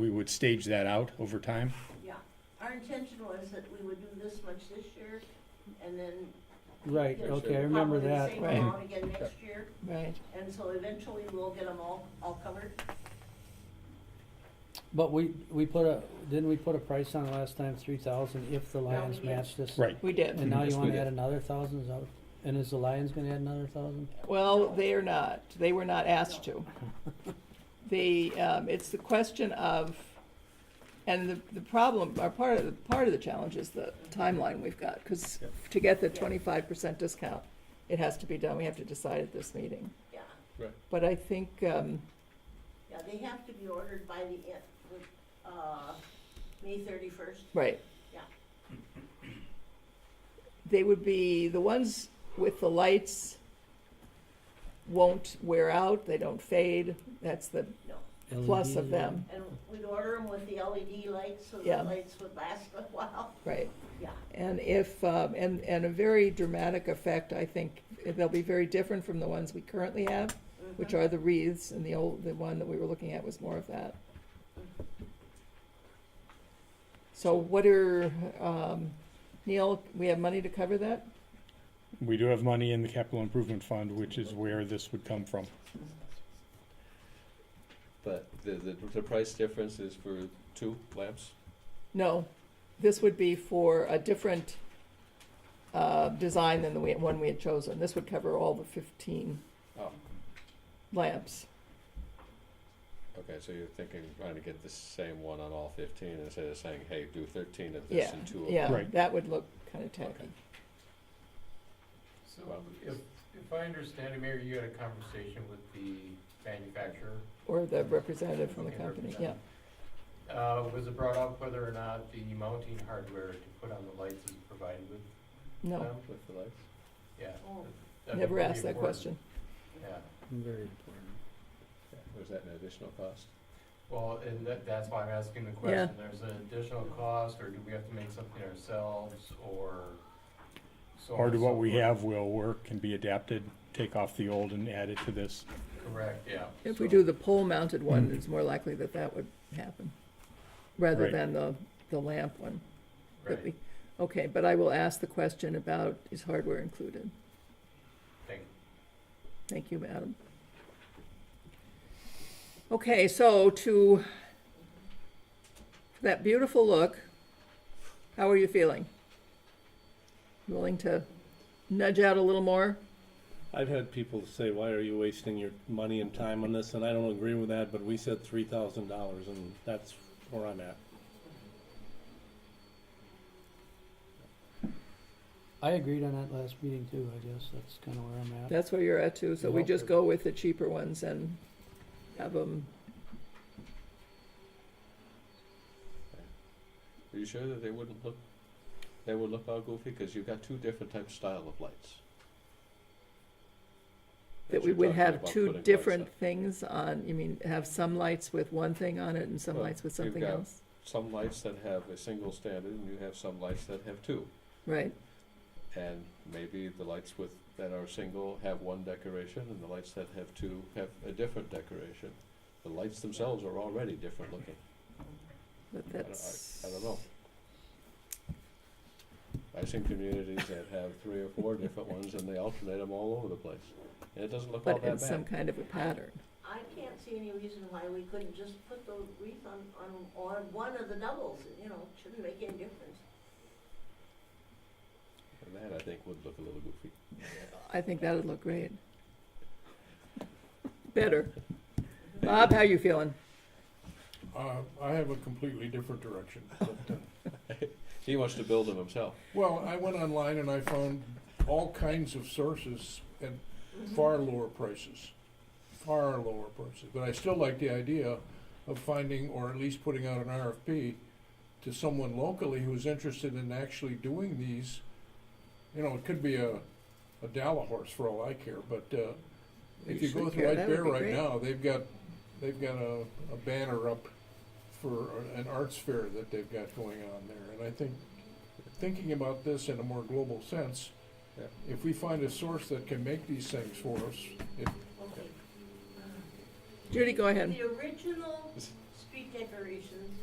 we would stage that out over time. Yeah, our intention was that we would do this much this year, and then. Right, you know, okay, I probably remember the that. Same Right. amount again next year, Right. and so eventually we'll get them all, all covered. But we, we put a, didn't we put a price on it last time, three thousand, if the Lions did. matched this? Right. We did. And now Yes, you we wanna did. add another thousand, is that, and is the Lions gonna add another thousand? Well, they are not. They were not asked to. They, um, it's the question of, and the, the problem, or part of, the part of the challenge is the timeline we've got, because Yep. to get the twenty-five percent discount, it has to be done. We have to decide at this meeting. Yeah, But I think, um, yeah, they have to be ordered by the end, uh, May thirty-first. right. Yeah. They would be, the ones with the lights won't wear out, they don't fade. That's the E plus of LED? them, And we'd order them with the LED lights, so Yeah. the lights would last a while, right? yeah. And if, um, and, and a very dramatic effect, I think, they'll be very different from the ones we currently have, Mm-hmm. which are the wreaths, and the old, the one that we were looking at was more of that. So what are, um, Neil, we have money to cover that? We do have money in the capital improvement fund, which is where this would come from. But the, the, the price difference is for two lamps? No, this would be for a different, uh, design than the we- one we had chosen. This would cover all the fifteen Oh, lamps. okay, so you're thinking, trying to get the same one on all fifteen instead of saying, hey, do thirteen of this Yeah, and two of that. yeah, Right. that would look kinda tacky. So if, if I understand it, Mayor, you had a conversation with the manufacturer. Or the representative from the Okay, company, yeah. Uh, was it brought up whether or not the mounting hardware to put on the lights is provided with them? No, With the lights? Yeah. Oh. that'd be never pretty asked that important. question. Yeah, Very important. Yeah. Was that an additional cost? well, and that, that's why I'm asking the Yeah. question. There's an additional cost, or do we have to make something ourselves, or so on Or do and so what we forth? have will work, can be adapted, take off the old and add it to this. Correct, yeah. If we So- do the pole mounted one, it's more likely that that would happen, rather Right. than the, the lamp one. that Right, we- Okay, but I will ask the question about is hardware included? thank you. Thank you, madam. Okay, so to that beautiful look, how are you feeling? Willing to nudge out a little more? I've had people say, "Why are you wasting your money and time on this?" And I don't agree with that. But we said three thousand dollars, and that's where I'm at. I agreed on that last meeting too, I guess, that's kinda where I'm at. That's where you're at too, so we Nope. just go with the cheaper ones and have them, Are you sure that they wouldn't look, they would look all goofy? Cause you've got two different types, style of lights. that we you're would talking have about two putting lights different up. things on, you mean, have some lights with one thing on it and some Well, lights with you've something got- else? Some lights that have a single standard and you have some lights that have two. Right, And maybe the lights with, that are single have one decoration, and the lights that have two have a different decoration. The lights themselves are already different looking. but I don't, that's. I, I don't know. I've seen communities that have three or four different ones, and they alternate them all over the place, and it doesn't look all But in that some bad. kind of a pattern. I can't see any reason why we couldn't just put the wreath on, on, on one of the doubles, you know, shouldn't make any difference. And that, I think, would look a little goofy. I think that'd look great. Better. Bob, how you feeling? Uh, I have a completely different direction. But, uh, He wants to build them himself. well, I went online and I found all kinds of sources at far lower prices, far lower prices. But I still like the idea of finding, or at least putting out an RFP to someone locally who's interested in actually doing these. You know, it could be a, a Dalla horse for all I care, but uh, if you go should through care. White That would Bear be right great. now, they've got they've got a, a banner up for an arts fair that they've got going on there. And I think, thinking about this in a more global sense, Yeah. if we find a source that can make these things for us, it, Okay. Judy, go ahead. The original street decorations